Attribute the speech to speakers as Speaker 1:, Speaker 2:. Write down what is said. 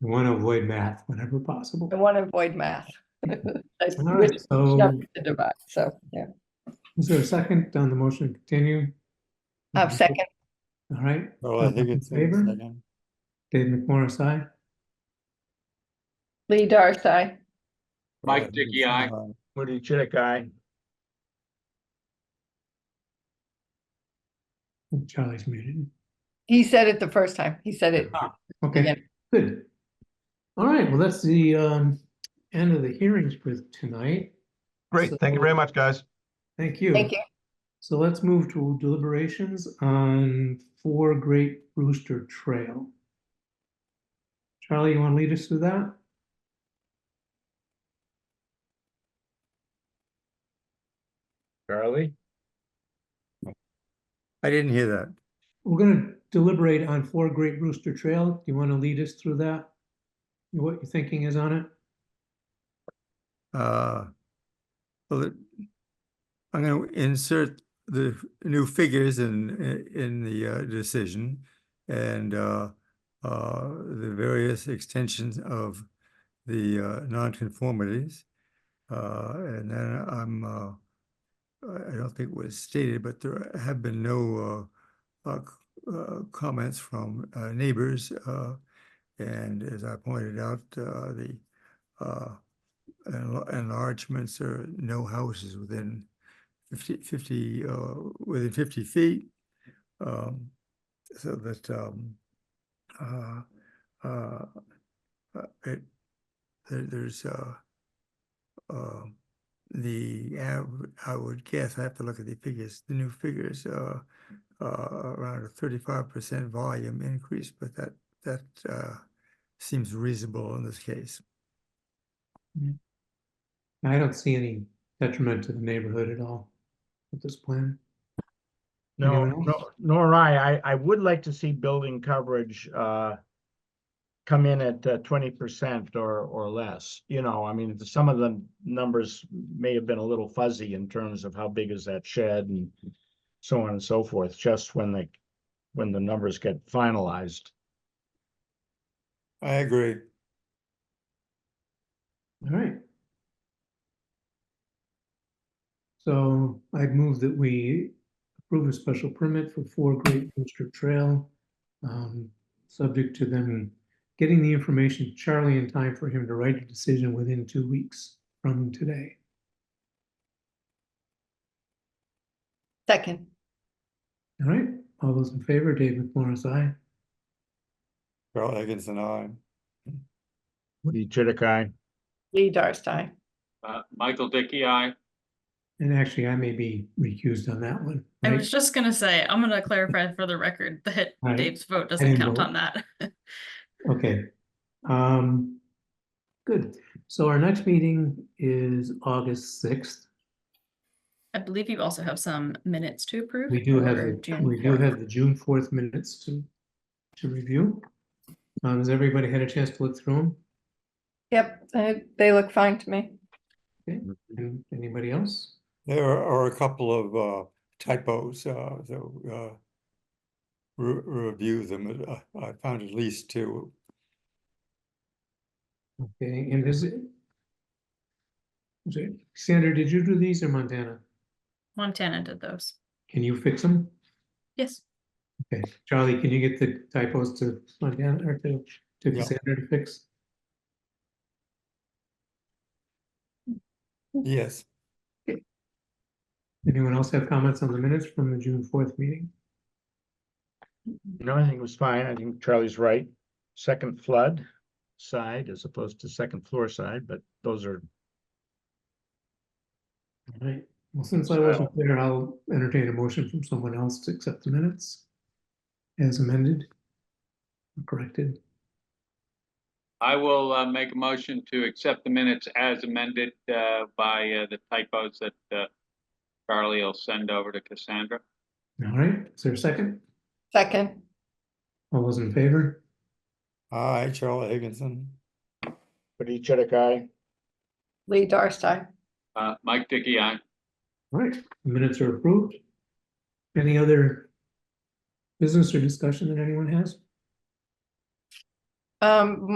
Speaker 1: You want to avoid math whenever possible.
Speaker 2: I want to avoid math. I
Speaker 1: All
Speaker 2: wish
Speaker 1: right, so
Speaker 2: to divide, So, yeah, Um,
Speaker 1: is there a second on the motion to continue?
Speaker 2: Uh,
Speaker 1: Mm-hmm.
Speaker 2: second,
Speaker 1: All right,
Speaker 3: Oh, I
Speaker 1: Uh,
Speaker 3: think
Speaker 1: in
Speaker 3: it's.
Speaker 1: favor? Dave McMorris, aye.
Speaker 2: Lee Darstai.
Speaker 4: Mike Dickey, aye.
Speaker 5: Woody Chitik, aye.
Speaker 1: Oh, Charlie's muted.
Speaker 2: He said it the first time. He said it.
Speaker 1: Ah.
Speaker 2: Yeah.
Speaker 1: Okay, good. All right, well, that's the um end of the hearings for tonight.
Speaker 5: Great, thank you very much, guys.
Speaker 1: Thank you.
Speaker 2: Thank you.
Speaker 1: So let's move to deliberations on Four Great Brewster Trail. Charlie, you want to lead us through that?
Speaker 5: Charlie?
Speaker 3: I didn't hear that.
Speaker 1: We're gonna deliberate on Four Great Rooster Trail. Do you want to lead us through that? What your thinking is on it?
Speaker 3: Uh, well, it- I'm going to insert the new figures in, i- in the uh, decision and uh, uh, the various extensions of the uh, nonconformities. Uh, And then I'm, uh, I I don't think it was stated, but there have been no uh, uh, c- uh, comments from uh, neighbors. uh, And as I pointed out, uh, the uh, enla- enlargements or no houses within 50, 50, uh, within 50 feet. um, So that um, uh, uh, uh, it, there- there's uh, uh, the, av- I would guess, I have to look at the figures, the new figures, uh, uh, around a 35% volume increase, but that, that uh, seems reasonable in this case.
Speaker 1: I don't see any detriment to the neighborhood at all with this plan.
Speaker 5: No,
Speaker 1: Anyone
Speaker 5: no,
Speaker 1: else?
Speaker 5: nor I. I, I would like to see building coverage, uh, come in at uh, twenty percent or, or less, you know, I mean, some of the numbers may have been a little fuzzy in terms of how big is that shed and so on and so forth, just when they, when the numbers get finalized.
Speaker 3: I agree.
Speaker 1: All right. So I'd move that we approve a special permit for Four Great Rooster Trail. um, Subject to them getting the information to Charlie in time for him to write a decision within two weeks from today.
Speaker 2: Second,
Speaker 1: All right, all those in favor, Dave McMorris, aye.
Speaker 3: Carl Higginson, aye.
Speaker 5: Woody Chitik, aye.
Speaker 2: Lee Darstai.
Speaker 4: Uh, Michael Dickey, aye.
Speaker 1: And actually, I may be recused on that one.
Speaker 6: I
Speaker 1: right?
Speaker 6: was just gonna say, I'm gonna clarify for the record that
Speaker 1: Right.
Speaker 6: Dave's vote doesn't
Speaker 1: didn't
Speaker 6: count
Speaker 1: vote.
Speaker 6: on that.
Speaker 1: Okay. Um, good. So our next meeting is August sixth.
Speaker 6: I believe you also have some minutes to approve.
Speaker 1: We do have,
Speaker 6: for
Speaker 1: the-
Speaker 6: June
Speaker 1: we do
Speaker 6: 4th.
Speaker 1: have the June fourth minutes to, to review. Um, has everybody had a chance to look through them?
Speaker 2: Yep, they- they look fine to me.
Speaker 1: And anybody else?
Speaker 3: There are a couple of uh, typos, uh, so uh, re- review them. uh, I found at least two.
Speaker 1: Okay, and is it? is it- Sandra, did you do these or Montana?
Speaker 6: Montana did those.
Speaker 1: Can you fix them?
Speaker 6: Yes,
Speaker 1: Okay, Charlie, can you get the typos to Montana or to, to
Speaker 3: Yeah.
Speaker 1: Cassandra to fix?
Speaker 3: Yes,
Speaker 1: Anyone else have comments on the minutes from the June fourth meeting?
Speaker 5: No, I think it was fine. I think Charlie's right. Second flood side as opposed to second floor side, but those are,
Speaker 1: All right, well, since I wasn't there, I'll entertain a motion from someone else to accept the minutes as amended. or Corrected,
Speaker 4: I will, uh, make a motion to accept the minutes as amended, uh, by, uh, the typos that, uh, Charlie will send over to Cassandra.
Speaker 1: all right, is there a second?
Speaker 2: Second,
Speaker 1: All those in favor?
Speaker 3: aye, Charlie Higginson.
Speaker 5: but each other guy.
Speaker 2: Lee Darstai.
Speaker 4: Uh, Mike Dickey, aye.
Speaker 1: All right, the minutes are approved. Any other business or discussion that anyone has?
Speaker 2: Um,